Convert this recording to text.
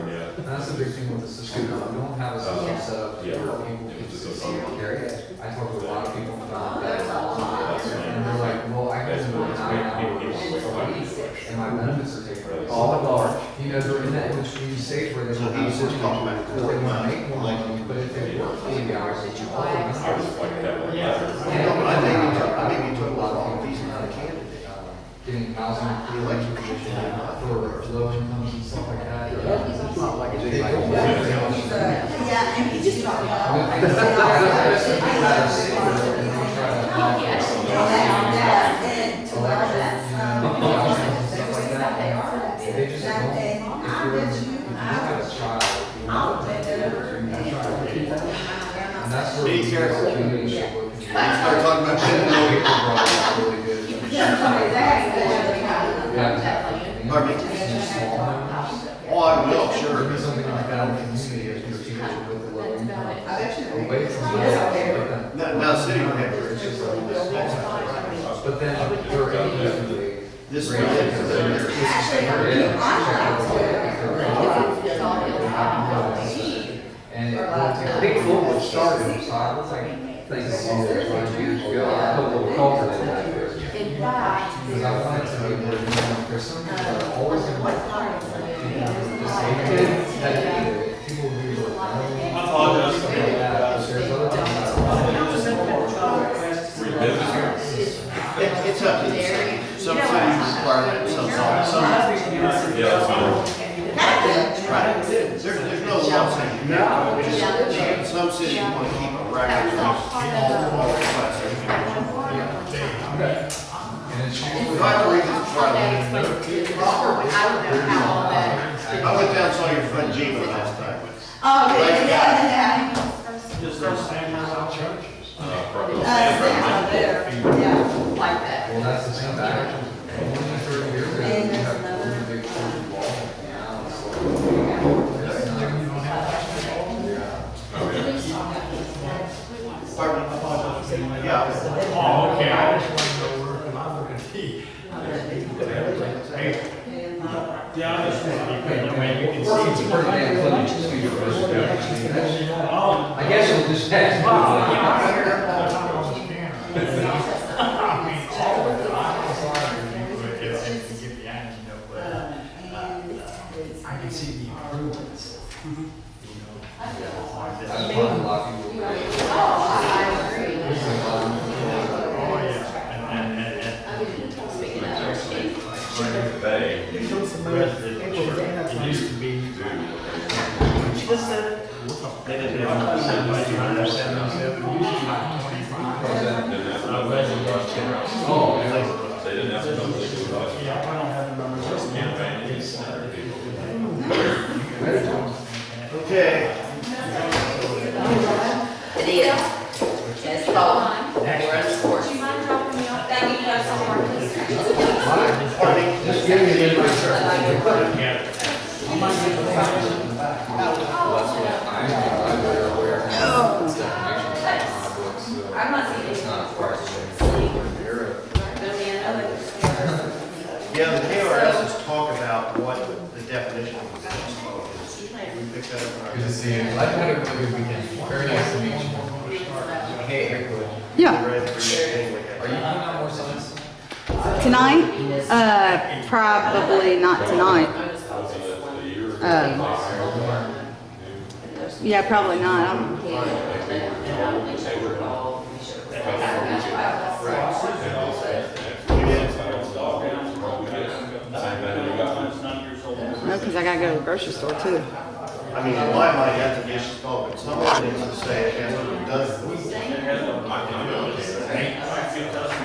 that's the big thing with the system, Scoot we don't have a Uh, system set up yeah. where people can It's just a see and phone. carry it. I talk to a lot of people about There's a that, lot. That's fine. and they're like, well, I That's can what work it's nine made, people, hours people, a like, week, and my benefits are taken. Right. All at large, you know, they're in that in between stage where they So don't have he's just work, documenting or they what- wanna make more like- money, but if they work eighty hours, it's all of I them. was like that one. Yeah, but I think you took, I think you took a lot of these out of candidate, Getting housing, the election commission, did not. for low incomes and stuff like that. It's not like it's They anybody. don't work very much. Yeah, and he just dropped I out. don't think that's- that's- that's- that's- that's- Yeah, yeah, and to all that. Stuff like That they that. are, They just don't, that they, if you're, I if you bet you, look I, at a child, you I'll know, bet that over. you're a child. And And that's where Be the careful. community should look. People Start talking about shit. brought up really good. Yeah. Pardon me? It's small numbers. Oh, I will, There sure. be something like that in the community, if you're teaching with the low income. I bet you. they- Away from Yes, that, they- but then- Now, now city manager, It's just like this. But then you're able to. this one is. And it will take. Big Foot was started, So I was like, things all that five years ago, I put a little culture in that. In fact, because I wanted to be more, you know, there's some people that are always gonna what's be not. disabled, that either people who are. "Oh, I apologize. There's other people that are. It's, it's up to the city. Some cities require that, some don't. Some, Yeah, that's fine. right. There's, there's no law saying. No. Some cities want to keep a record of all requests. And it's usually. If I had to read this, Charlie, I went down and saw your friend Gina last night. Oh, yeah, yeah, yeah. Is there Sanders out church? Uh, probably. Uh, yeah, there, yeah, like that. Well, that's the thing, that only for a year, we have a big church wall now, so. It's not. Pardon me? Yeah. Oh, okay, I just wanted to go work and I'm looking at tea. Hey, yeah, I just want to, you know, man, you can see. Pretty damn funny to see your resume. Oh, I guess it'll just pass. wow, by. yeah, I heard it all the time on the scanner. I mean, all of it, I was like, you could get, you could get behind, you know, but uh, I can see the improvements. That's why a lot of people. It's like, um, Oh, yeah, and, and, and, and They with the church, it used to be, do. what They didn't have to send money, I understand myself, but usually like twenty-five. They didn't have to- I was in Washington. Oh, yeah. They didn't have to come to the lodge. Yeah, I don't have the numbers. Just Campaign, it's not people. Okay. It is. It's cold. We're in sports. Thank you, guys, so much. Pardon me? Just give me a little. I'm not seeing it. Yeah, the KRS is talk about what the definition of possession is. We picked that up in our. Good to see you. I've had a really good weekend. Very nice to meet you. Yeah, Read through it anyway. Are you doing that more science? tonight? Uh, probably not tonight. Uh, yeah, probably not. I'm, no, because I gotta go to the grocery store too. I mean, in my mind, that's a yes call, but some of it is to say, it has to be done.